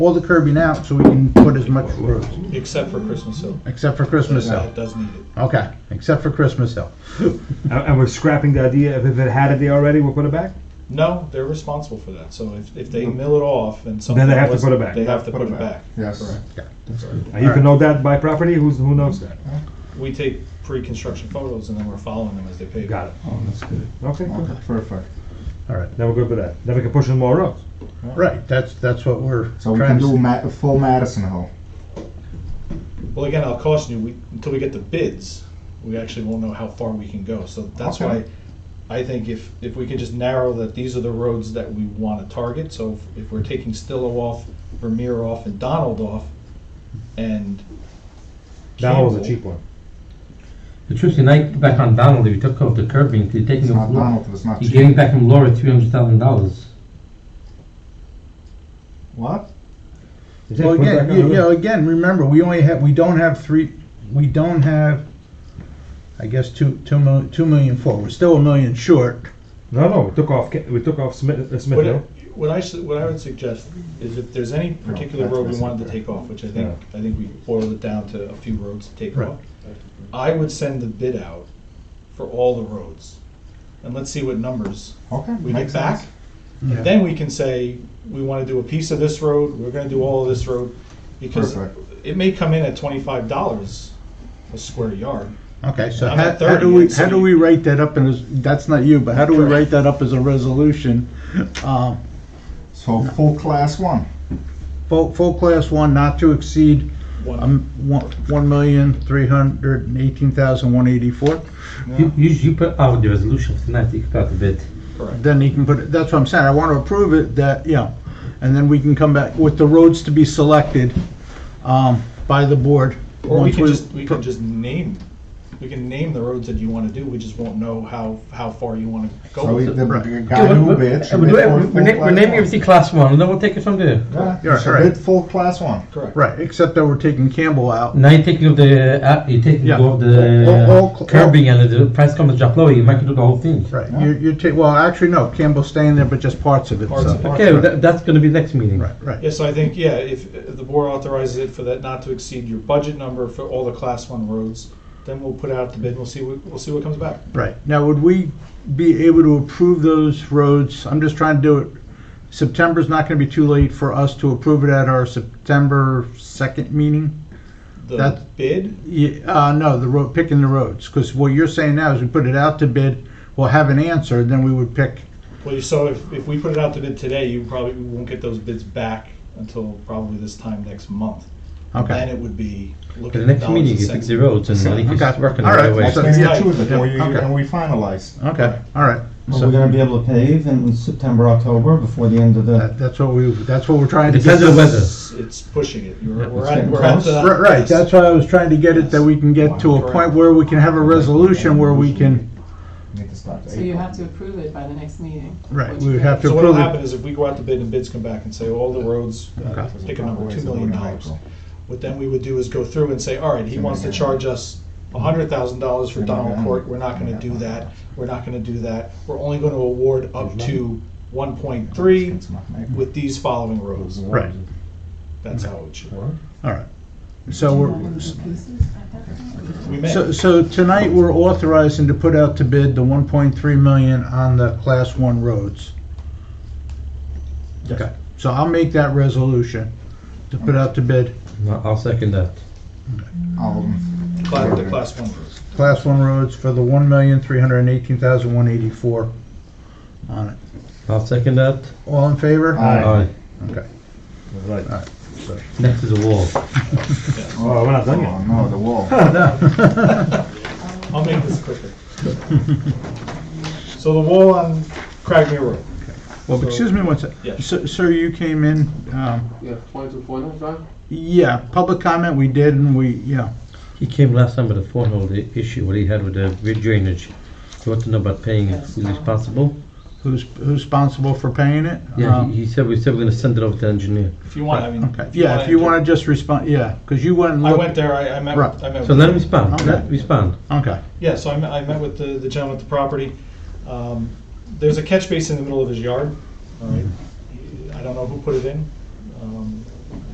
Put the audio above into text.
Pull the curbing out so we can put as much road, except for Christmas Hill. except for Christmas Hill. That does need it. Okay, except for Christmas Hill. Uh, And and we're scrapping the idea of if it had it there already, we'll put it back? No, they're responsible for that. So if, if they mill it off and something. Then they have to was- put it back. They have to put it back. Yes. Now, You can know that by property, who's, who knows that? We take pre-construction photos and then we're following them as they pave. Got it. Oh, that's good. Okay, good. Okay, perfect. All right, Then we're good with that. Then we can push in more roads. right, that's, that's what we're So we trying can to do Ma- full Madison Hill. Well, again, I'll caution you, we, until we get the bids, we actually won't know how far we can go. So that's why Okay. I think if, if we can just narrow that these are the roads that we want to target. So if- if we're taking Stillo off, Vermeer off, and Donald off, and. That was a Campbell- cheap one. The truth tonight, back on Donald, if you took off the curbing, you're It's taking not off Laura. Donald, it's not You're cheap. getting back from Laura three hundred thousand dollars. What? Is it Well, put back again, on you the you know, road? again, remember, we only have, we don't have three, we don't have, I guess, two, two mil, two million four, we're still a million short. No, no, we took off, Ca- we took off Smith, uh, Smith What I, Hill. what I should, what I would suggest is if there's any particular that's road we missing wanted to there. take off, which I think, I think we boiled it down to a few roads to take Right. off. I would send the bid out for all the roads, and let's see what numbers Okay. we get makes back. sense. Yeah. And then we can say, we wanna do a piece of this road, we're gonna do all of this road, because Perfect. it may come in at twenty-five dollars a square yard. Okay, so I'm how, at how 30, do we, and so how do we you- write that up in, as- that's not you, but how do we Correct. write that up as a resolution? Um, So full class one. Full, full class one, not to exceed, One, um, one, one million, three hundred and eighteen thousand, one eighty-four. You, you, you put out the resolution for tonight, you can put out the bid. correct. Then he can put, it. that's what I'm saying, I want to approve it, that, you know, and then we can come back with the roads to be selected, um, by the board. Or we once can just, we can just name, we can name the roads that you wanna do, we just won't know how, how far you wanna go So with we it. Uh, the Right. guy who We'll- bid should we'll- bid we'll- for We're full na- we're class naming one. everything class one, and then we'll take it from there. Yeah, Yeah, you should right. bid full class one. Correct. Right, except that we're taking Campbell out. Mm. Now you're taking off the, uh, you're taking Yeah. off All- all- all- the curbing and the price comes to drop lower, you might do the whole thing. Right, you, you take, well, actually, no, Campbell's staying there, but just parts of it, Parts so. of it. Okay, Right. that, that's gonna be next meeting. Right, right, Yeah, so I think, yeah, if if the board authorizes it for that not to exceed your budget number for all the class one roads, then we'll put out the bid, we'll see, what we'll see what comes back. right. Now, would we be able to approve those roads? I'm just trying to do it, September's not gonna be too late for us to approve it at our September second meeting? The That- bid, Yeah, uh, no, the road, picking the roads, because what you're saying now is we put it out to bid, we'll have an answer, then we would pick, well, you saw, if, if we put it out to bid today, you probably won't get those bids back until probably this time next month. Then okay. it would be For looking the at next dollars meeting, and you fix cents. the roads and I think you Okay. start working All on right. the way. So- Maybe yeah. two of the, Yeah, we- okay. and we finalize. Okay, all right. Well, So we're gonna be able to pave in September, October, before the end of the, that- That's what we, that's what we're trying to get. Depends on the this- weather. It's pushing it, You're- we're it's at, getting we're at close. the. Right, right, that's why I was trying to get it, that we can get to a point where we can have a resolution where we can, Make it start So you have to approve it by the next meeting. right, which we would have to So what'll approve happen it. is if we go out to bid and bids come back and say, all the roads, uh, Okay. pick a number, two million dollars. What then we would do is go through and say, all right, he wants to charge us hundred thousand dollars for Donald Court, we're not gonna do that, we're not gonna do that, we're only gonna award up to one point three with these following rows. Right, That's how it should work. all right. So we're, We may, so, so tonight we're authorizing to put out to bid the one point three million on the class one roads. Okay, so I'll make that resolution to put out to bid No, I'll second that. cla- the class one rows. class one roads for the one million, three hundred and eighteen thousand, one eighty-four on it. I'll second that. All in favor? Aye. All right. Okay. Right. Oh, Next is the wall. Oh, we're not done yet. Oh, no, the wall. I'll make this quicker. So the wall on Cragmere Road, Well, excuse me one sec. Yeah. Sir- Sir, you came in, um, Yeah, 22 pointers, right? yeah, public comment we did and we, yeah, He came last time with a phone the issue, what he had with the with drainage. He wanted to know about paying it, who's responsible. who's, who's responsible for paying it? Yeah, Um, he, he said, we said we're gonna send it over to the engineer. if you want, I mean. Okay, yeah, if you wanna just respond, yeah, cause you went and I looked. went there, I, I met, Right. I met. So let him respond, Okay. let him respond. Okay, Yeah, so I met, I met with the, the gentleman at the property. Um, There's a catch basin in the middle of his yard, all right? I don't know who put it in.